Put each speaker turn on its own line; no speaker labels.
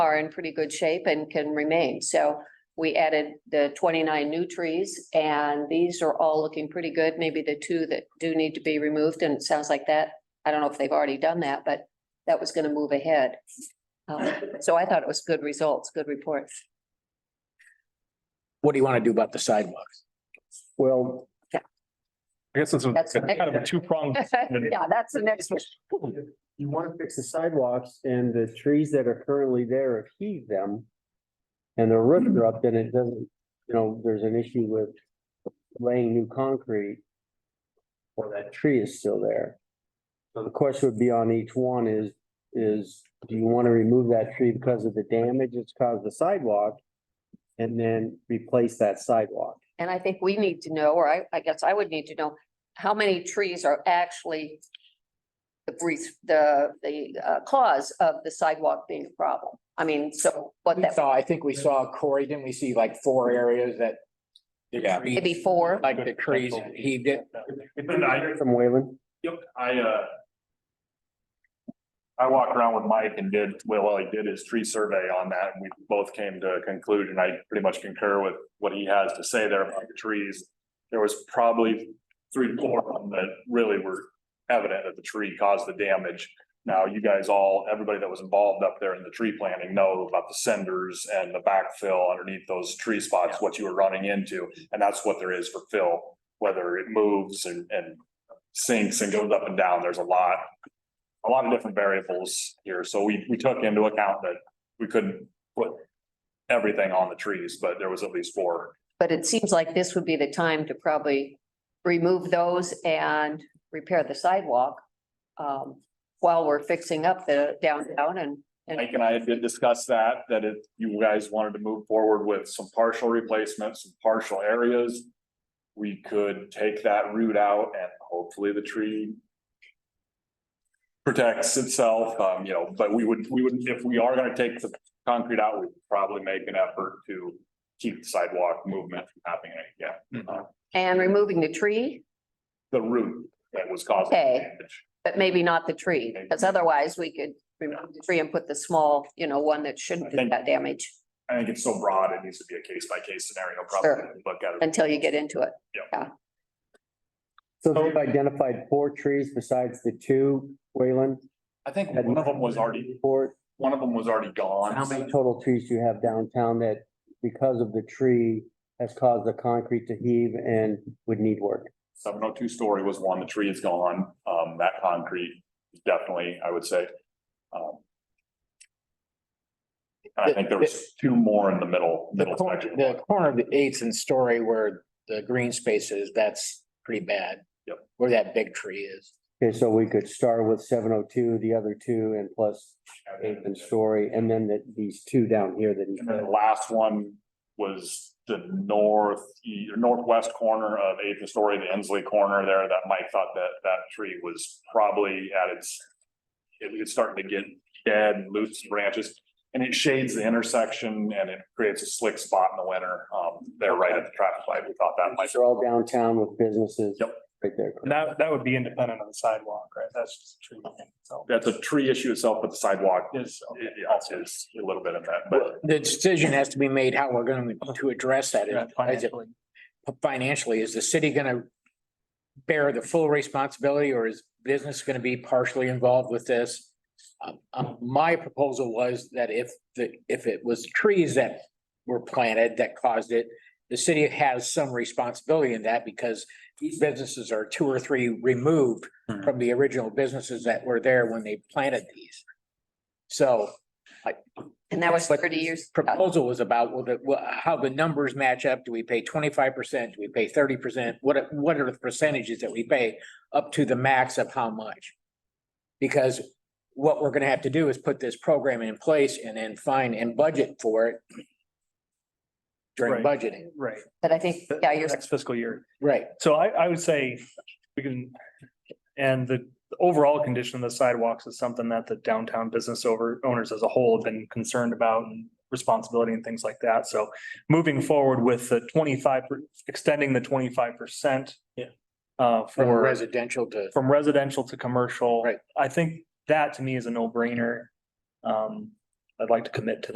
are in pretty good shape and can remain. So we added the twenty-nine new trees and these are all looking pretty good. Maybe the two that do need to be removed and it sounds like that. I don't know if they've already done that, but that was gonna move ahead. Um, So I thought it was good results, good report.
What do you want to do about the sidewalks?
Well,
I guess it's a
That's the next-
kind of a two pronged.
Yeah, that's the next one.
you want to fix the sidewalks and the trees that are currently there, if heave them. And the
Mm-hmm.
roofs are up, then it doesn't, you know, there's an issue with laying new concrete. Or that tree is still there. So the question would be on each one is, is do you want to remove that tree because of the damage it's caused the sidewalk? And then replace that sidewalk.
And I think we need to know, or I, I guess I would need to know, how many trees are actually the brief, the, the uh, cause of the sidewalk being a problem? I mean, so what
We
that,
saw, I think we saw Corey, didn't we see like four areas that? the
Yeah.
trees-
maybe four?
Like the trees heaved it.
And I,
From Wayland?
yep, I, uh. I walked around with Mike and did, well, well, he did his tree survey on that and we both came to a conclusion. I pretty much concur with what he has to say there about the trees. There was probably three, four of them that really were evident that the tree caused the damage. Now, you guys all, everybody that was involved up there in the tree planting know about the cinders and the backfill underneath those tree spots, what you were running into. And that's what there is for fill, whether it moves and, and sinks and goes up and down. There's a lot, a lot of different variables here. So we, we took into account that we couldn't put everything on the trees, but there was at least four.
But it seems like this would be the time to probably remove those and repair the sidewalk um, while we're fixing up the downtown and,
Mike
and
and I did discuss that, that if you guys wanted to move forward with some partial replacements, some partial areas, we could take that route out and hopefully the tree protects itself, um, you know, but we would, we would, if we are gonna take the concrete out, we'd probably make an effort to keep the sidewalk movement from happening, yeah, uh,
and removing the tree,
the root that was causing
Okay.
the damage.
but maybe not the tree. Because otherwise we could remove the tree and put the small, you know, one that shouldn't do that damage.
I think it's so broad, it needs to be a case by case scenario,
Sure.
probably, look at it.
until you get into it.
So
Oh.
they've identified four trees besides the two, Wayland,
I think one of them was already,
four.
one of them was already gone.
How many total trees do you have downtown that because of the tree has caused the concrete to heave and would need work?
Seven oh two story was one, the tree is gone, um, that concrete, definitely, I would say. Um, And I think there was two more in the middle,
The
middle
corner,
section.
the corner of the eighth and story where the green space is, that's pretty bad.
Yep.
Where that big tree is.
Okay, so we could start with seven oh two, the other two, and plus eighth and story, and then the, these two down here that he
And then the last one was the north, e- northwest corner of eighth and story, the Ensley corner there, that Mike thought that, that tree was probably at its. It was starting to get dead and loose branches, and it shades the intersection and it creates a slick spot in the winter, um, there right at the traffic light, we thought that might.
These are all downtown with businesses.
Yep.
Right there.
And that, that would be independent of the sidewalk, right? That's just a tree. So
That's a tree issue itself, but the sidewalk is,
is,
is a little bit of that, but
The decision has to be made how we're going to address that.
Yeah, financially.
Financially, is the city going to bear the full responsibility or is business going to be partially involved with this? Um, um, my proposal was that if the, if it was trees that were planted that caused it, the city has some responsibility in that because these businesses are two or three removed
Mhm.
from the original businesses that were there when they planted these. So
And that was
But
thirty years. ago.
proposal was about, well, the, well, how the numbers match up. Do we pay twenty-five percent? Do we pay thirty percent? What, are- what are the percentages that we pay up to the max of how much? Because what we're gonna have to do is put this program in place and then find and budget for it during
Right.
budgeting,
Right.
But I think,
The-
yeah,
the
you're,
Next fiscal year.
right?
So I, I would say we can, and the the overall condition of the sidewalks is something that the downtown business over owners as a whole have been concerned about and responsibility and things like that. So moving forward with the twenty-five, per- extending the twenty-five percent.
Yeah.
Uh,
From
for,
residential to,
from residential to commercial.
Right.
I think that to me is a no-brainer. Um, I'd like to commit to